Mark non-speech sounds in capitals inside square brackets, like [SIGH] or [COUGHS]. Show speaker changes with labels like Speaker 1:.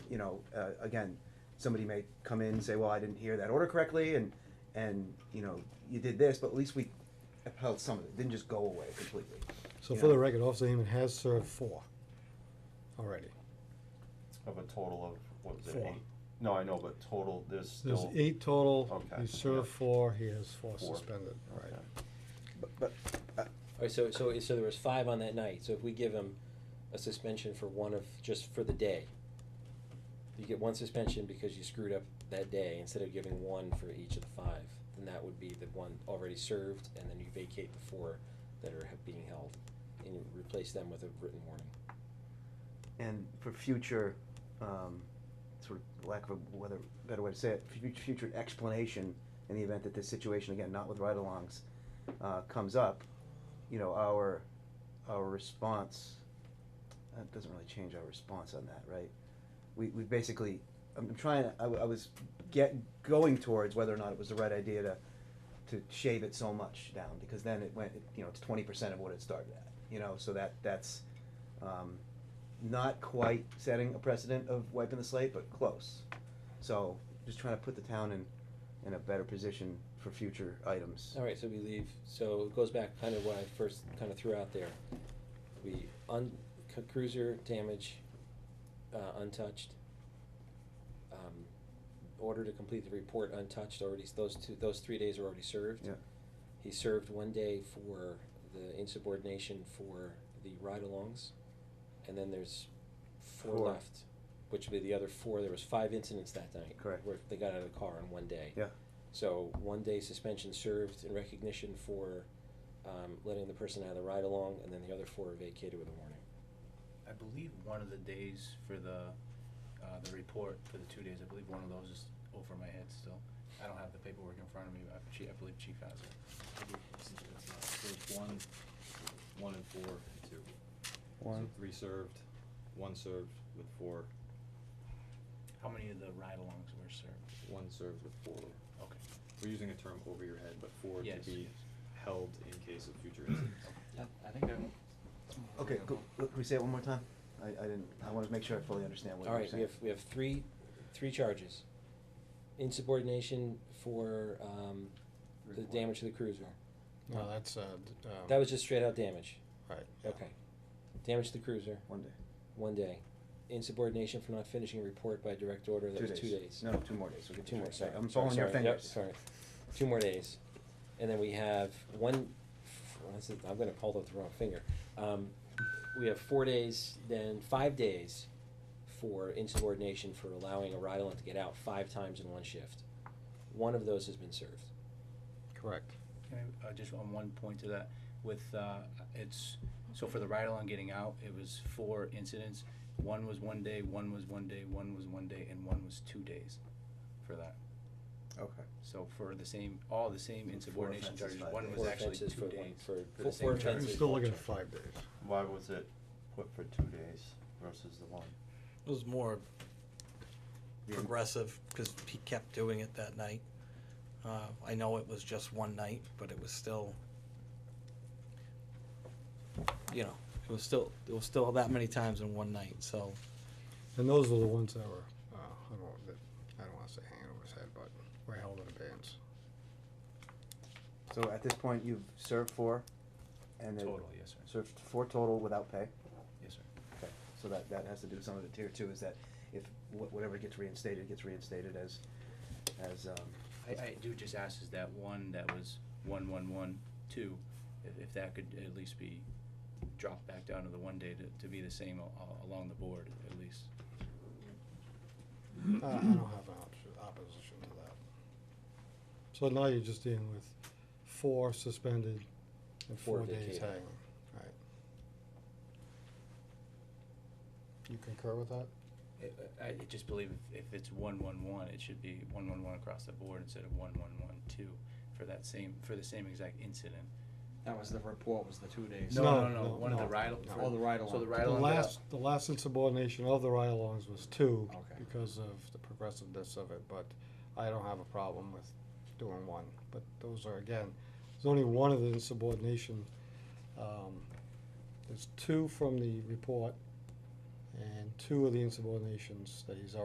Speaker 1: know, uh, again, somebody may come in and say, well, I didn't hear that order correctly, and, and, you know, you did this, but at least we upheld some of it, didn't just go away completely.
Speaker 2: So
Speaker 1: you
Speaker 2: for the
Speaker 1: know?
Speaker 2: record, Officer Heyman has served four already.
Speaker 3: Of a total of, what was it,
Speaker 2: Four.
Speaker 3: eight? No, I know, but total, there's
Speaker 2: There's
Speaker 3: still.
Speaker 2: eight total,
Speaker 3: Okay,
Speaker 2: he served
Speaker 3: yeah.
Speaker 2: four, he has four
Speaker 3: Four.
Speaker 2: suspended, right.
Speaker 3: Okay.
Speaker 1: But, but, uh,
Speaker 4: All right, so, so, so there was five on that night, so if we give him a suspension for one of, just for the day, you get one suspension because you screwed up that day, instead of giving one for each of the five, then that would be the one already served, and then you vacate the four that are being held, and you replace them with a written warning.
Speaker 1: and for future, um, sort of lack of a whether, better way to say it, fu- future explanation in the event that this situation, again, not with ride-alongs, uh, comes up, you know, our, our response, that doesn't really change our response on that, right? We, we basically, I'm trying, I, w- I was get, going towards whether or not it was the right idea to, to shave it so much down, because then it went, you know, it's twenty percent of what it started at, you know, so that, that's, um, not quite setting a precedent of wiping the slate, but close. So just trying to put the town in, in a better position for future items.
Speaker 4: All right, so we leave, so it goes back kind of what I first kind of threw out there. We un, c- cruiser damage, uh, untouched. Um, order to complete the report untouched, already, s- those two, those three days are already served.
Speaker 1: Yeah.
Speaker 4: He served one day for the insubordination for the ride-alongs, and then there's
Speaker 1: Four.
Speaker 4: four left, which would be the other four, there was five incidents that night.
Speaker 1: Correct.
Speaker 4: Where they got out of the car in one day.
Speaker 1: Yeah.
Speaker 4: So one day suspension served in recognition for um, letting the person out of the ride along, and then the other four are vacated with a warning.
Speaker 5: I believe one of the days for the, uh, the report for the two days, I believe one of those is over my head still. I don't have the paperwork in front of me, but I- Chief, I believe Chief has it.
Speaker 6: So it's one, one and four, and two. So three served, one served with four,
Speaker 5: How many of the ride-alongs were served?
Speaker 6: one served with four.
Speaker 5: Okay.
Speaker 6: We're using a term over your head, but four
Speaker 5: Yes,
Speaker 6: to be
Speaker 5: yes.
Speaker 6: held in case of future
Speaker 5: [COUGHS]
Speaker 6: incidents.
Speaker 5: I think
Speaker 1: Okay, go, can we say it one more time? I, I didn't, I wanted to make sure I fully understand what
Speaker 4: All
Speaker 1: you're
Speaker 4: right, we
Speaker 1: saying.
Speaker 4: have, we have three, three charges. Insubordination for um, the damage to the cruiser.
Speaker 2: No, that's, uh, d- um.
Speaker 4: That was just straight out damage.
Speaker 2: Right. yeah.
Speaker 4: Okay. Damage to the cruiser,
Speaker 1: One day.
Speaker 4: one day. Insubordination for not finishing a report by direct order, that was two days.
Speaker 1: No, no, two more days. We'll get
Speaker 4: Two more, sorry.
Speaker 1: I'm
Speaker 4: sorry,
Speaker 1: following your
Speaker 4: sorry, yep,
Speaker 1: fingers.
Speaker 4: sorry. Two more days. And then we have one, this is- I'm gonna hold up the wrong finger. Um, we have four days, then five days for insubordination for allowing a ride-along to get out five times in one shift. One of those has been served.
Speaker 2: Correct.
Speaker 5: Can I, uh, just on one point to that, with, uh, it's, so for the ride-along getting out, it was four incidents. One was one day, one was one day, one was one day, and one was two days for that.
Speaker 1: Okay.
Speaker 5: So for the same, all the same
Speaker 1: So four
Speaker 5: insubordination
Speaker 1: offenses,
Speaker 5: charges,
Speaker 1: five
Speaker 5: one
Speaker 1: days.
Speaker 5: was
Speaker 4: Four
Speaker 5: actually
Speaker 4: offenses
Speaker 5: two
Speaker 4: for one-
Speaker 5: days.
Speaker 4: for-
Speaker 5: for
Speaker 4: for
Speaker 5: the
Speaker 4: four
Speaker 5: same
Speaker 2: We're
Speaker 5: charge.
Speaker 4: offenses. Fences,
Speaker 2: still looking at
Speaker 4: watch out.
Speaker 2: five days.
Speaker 3: Why was it put for two days versus the one?
Speaker 7: It was more
Speaker 1: Yeah.
Speaker 7: progressive, because he kept doing it that night. Uh, I know it was just one night, but it was still, you know, it was still, it was still that many times in one night, so.
Speaker 2: And those were the ones that were, uh, I don't, want- that, I don't wanna say hanging over his head, but were held in abeyance.
Speaker 1: So at this point, you've served four and then
Speaker 5: Total, yes, sir.
Speaker 1: served four total without pay.
Speaker 5: Yes, sir.
Speaker 1: Okay, so that, that has to do with some of it tier two, is that if wh- whatever gets reinstated, gets reinstated as, as, um,
Speaker 5: I, I do just ask is that one that was one, one, one, two, if, if that could at least be dropped back down to the one day to, to be the same a- a- along the board at least.
Speaker 2: I I don't have an op- opposition to that. So now you're just dealing with four suspended and
Speaker 4: Four
Speaker 2: four days
Speaker 4: vacated.
Speaker 2: hanging, right? You concur with that?
Speaker 5: I- I, I just believe if, if it's one, one, one, it should be one, one, one across the board instead of one, one, one, two for that same, for the same exact incident.
Speaker 8: That was the report, was the two days.
Speaker 2: No,
Speaker 5: No, no,
Speaker 2: no,
Speaker 5: no, one of
Speaker 2: no,
Speaker 5: the ride.
Speaker 2: no.
Speaker 5: for-
Speaker 8: Oh, the ride-along.
Speaker 5: So the
Speaker 2: The
Speaker 5: ride-along. got
Speaker 2: last, the last insubordination of the ride-alongs was two
Speaker 8: Okay.
Speaker 2: because of the progressiveness of it, but I don't have a problem with doing one. But those are, again, there's only one of the insubordination. um, There's two from the report and two of the insubordinations that he's already